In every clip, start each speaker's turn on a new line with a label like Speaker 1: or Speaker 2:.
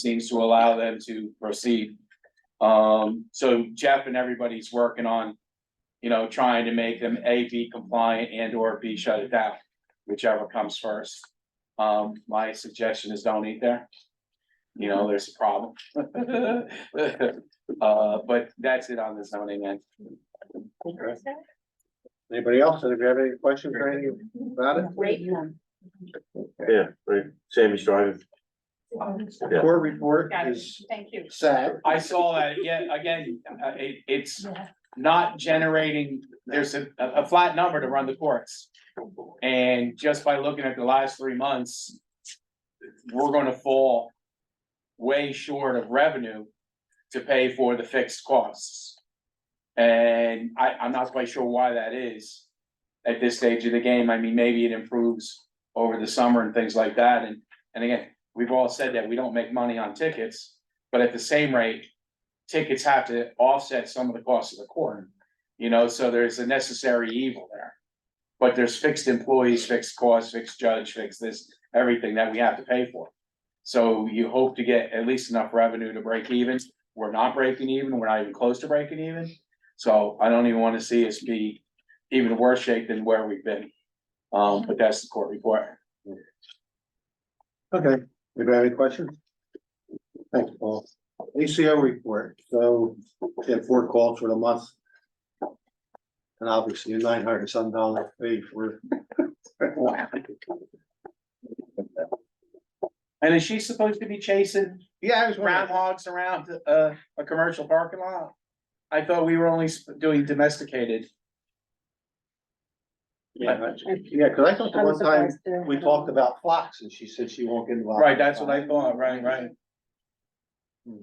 Speaker 1: seems to allow them to proceed. Um, so Jeff and everybody's working on, you know, trying to make them A, B compliant and or B shut it down, whichever comes first. Um, my suggestion is don't eat there. You know, there's a problem. Uh, but that's it on the zoning end.
Speaker 2: Anybody else? If you have any questions or anything about it?
Speaker 3: Rate them.
Speaker 4: Yeah, right, Sammy's driving.
Speaker 2: The Court report
Speaker 3: Got it.
Speaker 2: is
Speaker 3: Thank you.
Speaker 2: sad.
Speaker 1: I saw that, yeah, again, uh, it, it's not generating, there's a, a a flat number to run the courts. And just by looking at the last three months, we're gonna fall way short of revenue to pay for the fixed costs. And I, I'm not quite sure why that is at this stage of the game. I mean, maybe it improves over the summer and things like that. And, and again, we've all said that we don't make money on tickets, but at the same rate, tickets have to offset some of the cost of the court. You know, so there's a necessary evil there. But there's fixed employees, fixed costs, fixed judge, fixed this, everything that we have to pay for. So you hope to get at least enough revenue to break even. We're not breaking even, we're not even close to breaking even. So I don't even wanna see us be even worse shape than where we've been. Um, but that's the court report.
Speaker 2: Okay, if you have any questions? Thanks, Paul. ACO report, so we had four calls for the month. And obviously nine hundred some dollar fee for.
Speaker 1: And is she supposed to be chasing
Speaker 2: Yeah, I was wondering,
Speaker 1: groundhogs around a, a commercial parking lot? I thought we were only sp- doing domesticated.
Speaker 2: yeah, yeah, cause I thought the one time we talked about flocks and she said she won't get involved. Hmm.
Speaker 1: Right, that's what I thought, right, right.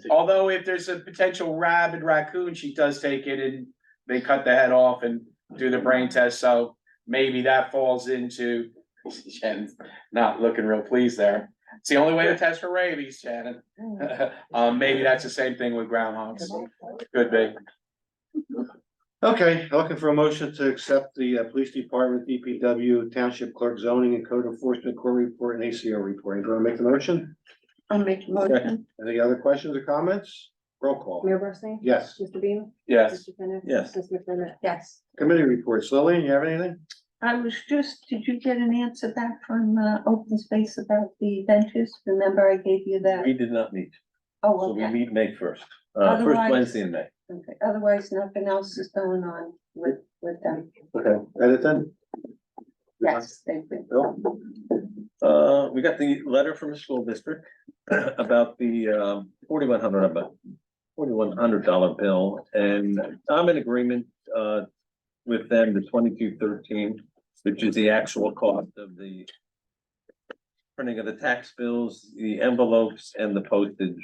Speaker 1: Although if there's a potential rabid raccoon, she does take it and they cut the head off and do the brain test, so maybe that falls into Shannon's not looking real pleased there. It's the only way to test for rabies, Shannon. Um, maybe that's the same thing with groundhogs. Could be.
Speaker 2: Okay, looking for a motion to accept the uh, police department, DPW, township clerk zoning and code enforcement court report and ACO report. You wanna make the motion?
Speaker 3: I'll make a motion.
Speaker 2: Any other questions or comments? Roll call.
Speaker 5: Mayor Barsney?
Speaker 2: Yes.
Speaker 5: Mr. Beam?
Speaker 1: Yes.
Speaker 5: Mr. Finn?
Speaker 4: Yes.
Speaker 5: Ms. McDermott?
Speaker 3: Yes.
Speaker 2: Committee reports. Lillian, you have anything?
Speaker 3: I was just, did you get an answer back from uh open space about the benches? Remember I gave you that?
Speaker 4: We did not meet, so
Speaker 3: Oh,
Speaker 4: we
Speaker 3: okay.
Speaker 4: meet May first, uh, first
Speaker 3: Otherwise-
Speaker 4: Wednesday in May.
Speaker 3: Okay. Otherwise, nothing else is going on with with them.
Speaker 2: Okay, edit then.
Speaker 3: Yes, thank you.
Speaker 2: Bill?
Speaker 4: Uh, we got the letter from the school district about the, um, forty-one hundred, about forty-one hundred dollar bill, and I'm in agreement, uh, with them, the twenty-two thirteen, which is the actual cost of the printing of the tax bills, the envelopes, and the postage.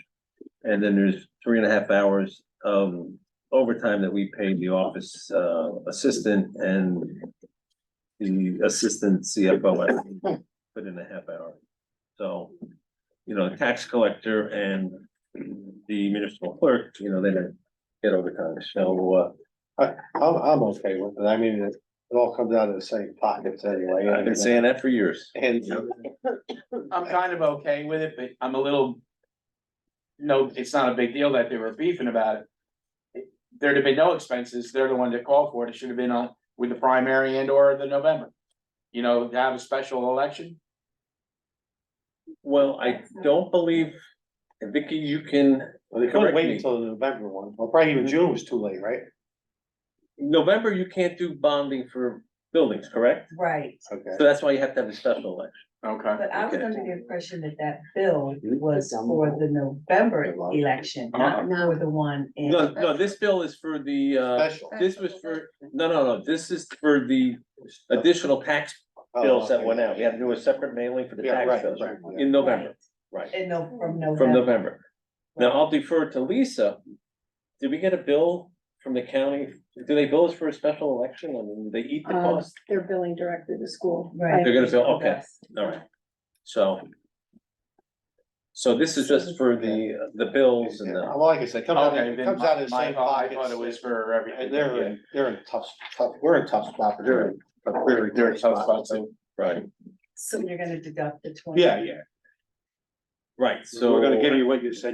Speaker 4: And then there's three and a half hours of overtime that we paid the office, uh, assistant and the assistant CFO, I think, put in a half hour. So, you know, tax collector and the municipal clerk, you know, they don't get overtime, so,
Speaker 2: I'm, I'm okay with it. I mean, it it all comes out of the same pockets anyway.
Speaker 4: uh, I've been saying that for years.
Speaker 2: And
Speaker 1: I'm kind of okay with it, but I'm a little. No, it's not a big deal that they were beefing about it. There'd have been no expenses, they're the one that called for it, it should have been on with the primary and or the November. You know, to have a special election,
Speaker 4: Well, I don't believe, Vicky, you can,
Speaker 2: well, they couldn't wait until the November one. Well, probably even June was too late, right?
Speaker 4: November, you can't do bonding for buildings, correct?
Speaker 6: Right,
Speaker 2: Okay.
Speaker 4: So that's why you have to have a special election.
Speaker 1: okay,
Speaker 6: but I was
Speaker 4: Okay.
Speaker 6: under the impression that that bill was for the November election,
Speaker 2: uh,
Speaker 6: not for the one in.
Speaker 4: No, no, this bill is for the, uh,
Speaker 2: Special.
Speaker 4: this was for, no, no, no, this is for the additional tax bills that went out. We had to do a separate mailing for the
Speaker 2: Oh, Yeah,
Speaker 4: tax
Speaker 2: right,
Speaker 4: bills
Speaker 2: right, yeah.
Speaker 4: in November, right?
Speaker 6: And no, from
Speaker 4: From
Speaker 6: November.
Speaker 4: November. Now, I'll defer to Lisa. Did we get a bill from the county? Do they bill us for a special election? I mean, they eat the
Speaker 5: Um,
Speaker 4: cost.
Speaker 5: They're billing directly to school.
Speaker 6: Right.
Speaker 4: They're gonna bill, okay, all right. So. So this is just for the, uh, the bills and
Speaker 2: Yeah,
Speaker 4: the,
Speaker 2: Well, like I said, it comes out,
Speaker 1: okay,
Speaker 2: of- it
Speaker 1: then
Speaker 2: comes out of the
Speaker 1: my,
Speaker 2: same
Speaker 1: my thought- I thought it
Speaker 2: pockets.
Speaker 1: was for everything.
Speaker 2: And they're, in- they're in tough, tough, we're in tough spot, but they're in a very,
Speaker 1: They're- they're
Speaker 2: very
Speaker 1: a tough
Speaker 2: tough spot.
Speaker 1: spot, so
Speaker 4: right,
Speaker 6: So you're gonna deduct the twenty.
Speaker 2: Yeah, yeah.
Speaker 4: Right, so.
Speaker 2: So we're gonna give you what you said